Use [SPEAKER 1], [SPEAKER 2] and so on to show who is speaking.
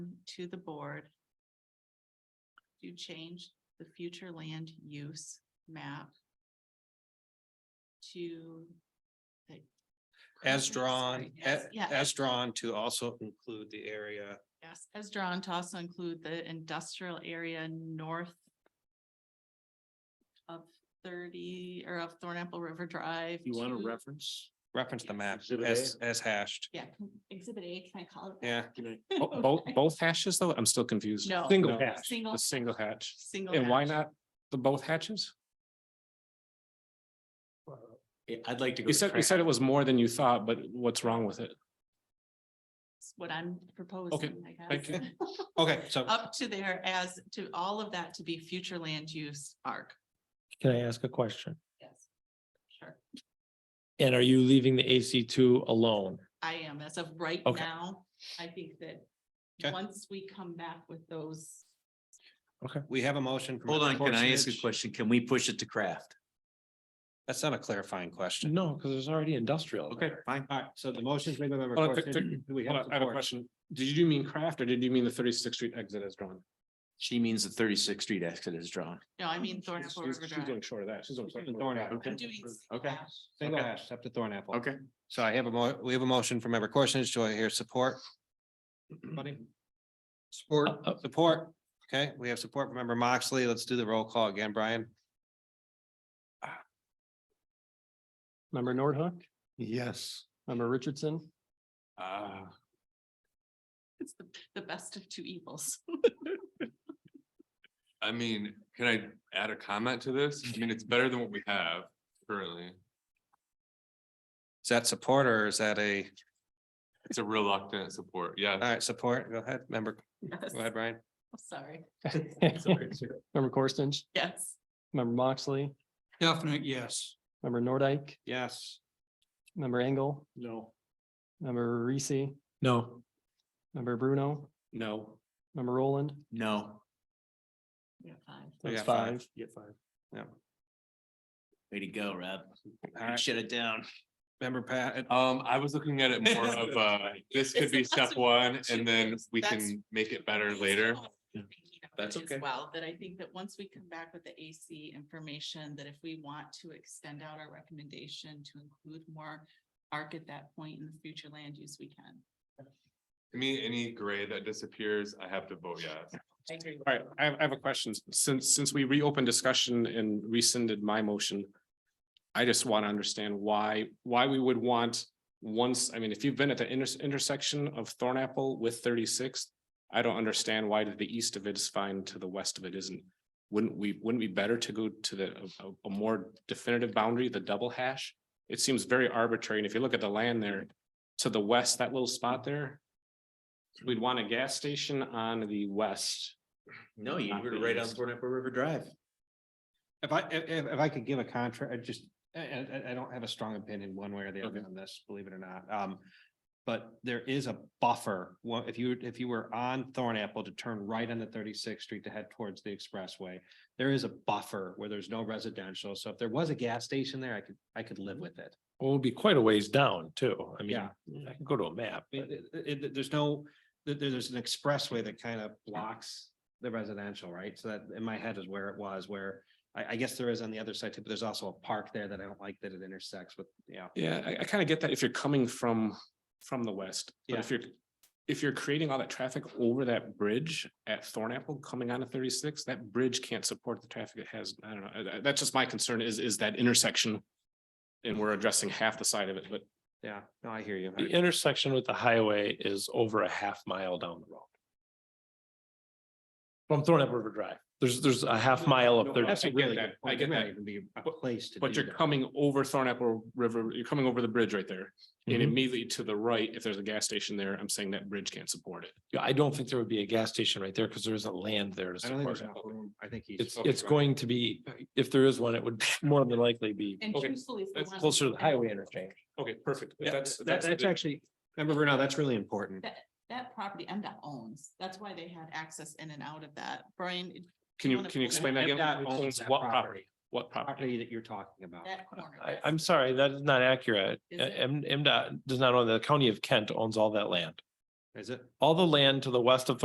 [SPEAKER 1] to the board to change the future land use map to the-
[SPEAKER 2] As
[SPEAKER 1] Sorry,
[SPEAKER 2] drawn,
[SPEAKER 1] yes,
[SPEAKER 2] a-
[SPEAKER 1] Yeah,
[SPEAKER 2] as drawn to also include the area
[SPEAKER 1] Yes, as drawn to also include the industrial area north of thirty or of Thorn Apple River Drive.
[SPEAKER 3] You want
[SPEAKER 1] to-
[SPEAKER 3] a reference?
[SPEAKER 2] reference the map
[SPEAKER 3] Exhibit
[SPEAKER 2] as,
[SPEAKER 3] A.
[SPEAKER 2] as hashed.
[SPEAKER 1] Yeah, can- exhibit A, can I call it? that?
[SPEAKER 2] Yeah.
[SPEAKER 3] Can I-
[SPEAKER 4] Bo-
[SPEAKER 2] Oh,
[SPEAKER 4] Both, both hashes though? I'm still confused.
[SPEAKER 1] No.
[SPEAKER 4] Single
[SPEAKER 2] No.
[SPEAKER 4] hatch,
[SPEAKER 1] Single-
[SPEAKER 4] the single hatch.
[SPEAKER 1] Single.
[SPEAKER 4] And why
[SPEAKER 1] hatch.
[SPEAKER 4] not the both hatches?
[SPEAKER 3] Yeah, I'd like to. go
[SPEAKER 4] You
[SPEAKER 3] to
[SPEAKER 4] said, you
[SPEAKER 3] Fran.
[SPEAKER 4] said it was more than you thought, but what's wrong with it?
[SPEAKER 1] It's What I'm proposing, I
[SPEAKER 4] thank
[SPEAKER 1] guess.
[SPEAKER 2] Okay, so
[SPEAKER 1] Up to there as to all of that to be future land use arc.
[SPEAKER 5] Can I ask a question?
[SPEAKER 1] Yes. Sure,
[SPEAKER 5] And are you leaving the AC two alone?
[SPEAKER 1] I am, as of right
[SPEAKER 5] Okay.
[SPEAKER 1] now, I think that
[SPEAKER 2] Okay.
[SPEAKER 1] once we come back with those,
[SPEAKER 2] we have a motion. from
[SPEAKER 3] Hold on, can I ask a
[SPEAKER 2] Schwarzenich.
[SPEAKER 3] question? Can we push it to craft?
[SPEAKER 2] That's not a clarifying question.
[SPEAKER 5] No, because there's already industrial.
[SPEAKER 3] Okay, fine.
[SPEAKER 2] All right, so the motion's made by member
[SPEAKER 4] Hold on, th- th-
[SPEAKER 2] Schwarzenich. Do we
[SPEAKER 4] hold
[SPEAKER 2] have
[SPEAKER 4] on, I have a
[SPEAKER 2] support?
[SPEAKER 4] question. Did you mean craft or did you mean the thirty-sixth street exit as drawn?
[SPEAKER 3] She means the thirty-sixth street exit is drawn.
[SPEAKER 1] no, I mean Thorn
[SPEAKER 4] She's-
[SPEAKER 1] Apple
[SPEAKER 4] she's-
[SPEAKER 1] River
[SPEAKER 4] She's
[SPEAKER 1] Drive.
[SPEAKER 4] going short of that. She's
[SPEAKER 2] She's doing
[SPEAKER 4] going.
[SPEAKER 2] Thorn Apple.
[SPEAKER 1] I'm doing single
[SPEAKER 3] Okay.
[SPEAKER 1] hatch.
[SPEAKER 2] Single
[SPEAKER 3] Okay.
[SPEAKER 2] hash, up to Thorn Apple.
[SPEAKER 3] Okay.
[SPEAKER 2] So I have a mo, we have a motion from member Korsnich. Do I hear support? Buddy? Support,
[SPEAKER 5] Uh, uh.
[SPEAKER 2] support. Okay, we have support from member Moxley. Let's do the roll call again, Brian.
[SPEAKER 5] Member Nordhook,
[SPEAKER 3] Yes.
[SPEAKER 5] member Richardson,
[SPEAKER 3] Uh,
[SPEAKER 1] It's the, the best of two evils.
[SPEAKER 6] I mean, can I add a comment to this? I mean, it's better than what we have currently.
[SPEAKER 2] Is that support or is that a,
[SPEAKER 6] It's a reluctant support.
[SPEAKER 2] all
[SPEAKER 6] Yeah,
[SPEAKER 2] right, support? Go ahead, member,
[SPEAKER 1] Yes.
[SPEAKER 2] go ahead, Brian.
[SPEAKER 1] Sorry,
[SPEAKER 5] member Corstens,
[SPEAKER 1] yes,
[SPEAKER 5] member Moxley,
[SPEAKER 2] Definitely, yes.
[SPEAKER 5] member Nordike,
[SPEAKER 2] Yes.
[SPEAKER 5] member Engel,
[SPEAKER 4] No,
[SPEAKER 5] member Reese,
[SPEAKER 4] no,
[SPEAKER 5] member Bruno,
[SPEAKER 4] no.
[SPEAKER 5] member Roland.
[SPEAKER 3] no,
[SPEAKER 1] we have five.
[SPEAKER 2] We
[SPEAKER 5] That's
[SPEAKER 2] got five.
[SPEAKER 5] five.
[SPEAKER 4] Get five.
[SPEAKER 3] way to go, Rob.
[SPEAKER 2] All right,
[SPEAKER 3] Shut it down.
[SPEAKER 2] member Pat,
[SPEAKER 6] um, I was looking at it more of, uh, this could be
[SPEAKER 1] It's lots
[SPEAKER 6] step
[SPEAKER 1] of
[SPEAKER 6] one and then
[SPEAKER 1] options.
[SPEAKER 6] we
[SPEAKER 1] That's-
[SPEAKER 6] can make it better later.
[SPEAKER 1] I'm thinking of
[SPEAKER 3] That's
[SPEAKER 1] it as
[SPEAKER 3] okay.
[SPEAKER 1] Well, that I think that once we come back with the AC information, that if we want to extend out our recommendation to include more arc at that point in the future land use, we can.
[SPEAKER 6] To me, any gray that disappears, I have to vote yes.
[SPEAKER 4] All right, I have, I have a question. Since, since we reopened discussion and rescinded my motion. I just want to understand why, why we would want once, I mean, if you've been at the inter- intersection of Thorn Apple with thirty-sixth. I don't understand why the east of it is fine to the west of it isn't. Wouldn't we, wouldn't it be better to go to the, a- a, a more definitive boundary, the double hash? It seems very arbitrary. And if you look at the land there, to the west, that little spot there. We'd want a gas station on the west.
[SPEAKER 3] No, you were right on Thorn Apple River Drive.
[SPEAKER 2] if I, if, if- if I could give a contract, I just, I, I- I, I don't have a strong opinion one way or the other
[SPEAKER 4] Okay.
[SPEAKER 2] on this, believe it or not. Um, but there is a buffer. Well, if you, if you were on Thorn Apple to turn right on the thirty-sixth street to head towards the expressway, there is a buffer where there's no residential. So if there was a gas station there, I could, I could live with it.
[SPEAKER 5] Will be quite a ways down too. I mean,
[SPEAKER 2] Yeah.
[SPEAKER 5] I can go to a map.
[SPEAKER 2] I mean, it- it- it- there's no, there, there's an expressway that kind of blocks the residential, right? So that in my head is where it was, where I, I guess there is on the other side too, but there's also a park there that I don't like that it intersects with, you know.
[SPEAKER 4] Yeah, I, I kind of get that if you're coming from, from the west, but if you're, if you're creating all that traffic over that bridge at Thorn Apple coming onto thirty-six, that bridge can't support the traffic it has. I don't know, uh, uh, that's just my concern is, is that intersection. And we're addressing half the side of it, but
[SPEAKER 2] Yeah, no, I hear you.
[SPEAKER 5] The intersection with the highway is over a half mile down the road. From Thorn Apple River Drive. There's, there's a half mile
[SPEAKER 4] No,
[SPEAKER 5] up there.
[SPEAKER 4] I get that, I get that.
[SPEAKER 2] Even be a
[SPEAKER 4] But-
[SPEAKER 2] place to.
[SPEAKER 4] But
[SPEAKER 2] do
[SPEAKER 4] you're
[SPEAKER 2] that.
[SPEAKER 4] coming over Thorn Apple River, you're coming over the bridge right there. And
[SPEAKER 5] Mhm.
[SPEAKER 4] immediately to the right, if there's a gas station there, I'm saying that bridge can't support it.
[SPEAKER 5] Yeah, I don't think there would be a gas station right there because there isn't land there to
[SPEAKER 2] I don't think
[SPEAKER 5] support
[SPEAKER 2] there's
[SPEAKER 5] it.
[SPEAKER 2] enough room. I think he's.
[SPEAKER 5] It's,
[SPEAKER 2] okay,
[SPEAKER 5] it's
[SPEAKER 2] right.
[SPEAKER 5] going to be, if there is one, it would more than likely be
[SPEAKER 1] And
[SPEAKER 4] Okay.
[SPEAKER 1] truthfully. if we
[SPEAKER 4] That's
[SPEAKER 1] wanna-
[SPEAKER 5] closer to the highway interchange.
[SPEAKER 4] Okay, perfect.
[SPEAKER 2] Yeah,
[SPEAKER 4] That's,
[SPEAKER 2] that-
[SPEAKER 4] that's,
[SPEAKER 2] that's
[SPEAKER 4] the-
[SPEAKER 2] actually, remember Bruno, that's really important.
[SPEAKER 1] That property MDOT owns. That's why they had access in and out of that. Brian,
[SPEAKER 4] can you,
[SPEAKER 1] on a
[SPEAKER 4] can
[SPEAKER 1] corner.
[SPEAKER 4] you explain that again?
[SPEAKER 2] MDOT owns
[SPEAKER 4] Owns
[SPEAKER 2] that
[SPEAKER 4] What
[SPEAKER 2] property.
[SPEAKER 4] property? What property?
[SPEAKER 2] Property that you're talking about.
[SPEAKER 1] that corner.
[SPEAKER 5] I,
[SPEAKER 1] yes.
[SPEAKER 5] I'm sorry, that is not accurate.
[SPEAKER 1] Is
[SPEAKER 5] Uh,
[SPEAKER 1] it?
[SPEAKER 5] M, MDOT does not own, the county of Kent owns all that land.
[SPEAKER 2] Is it?
[SPEAKER 5] All the land to the west of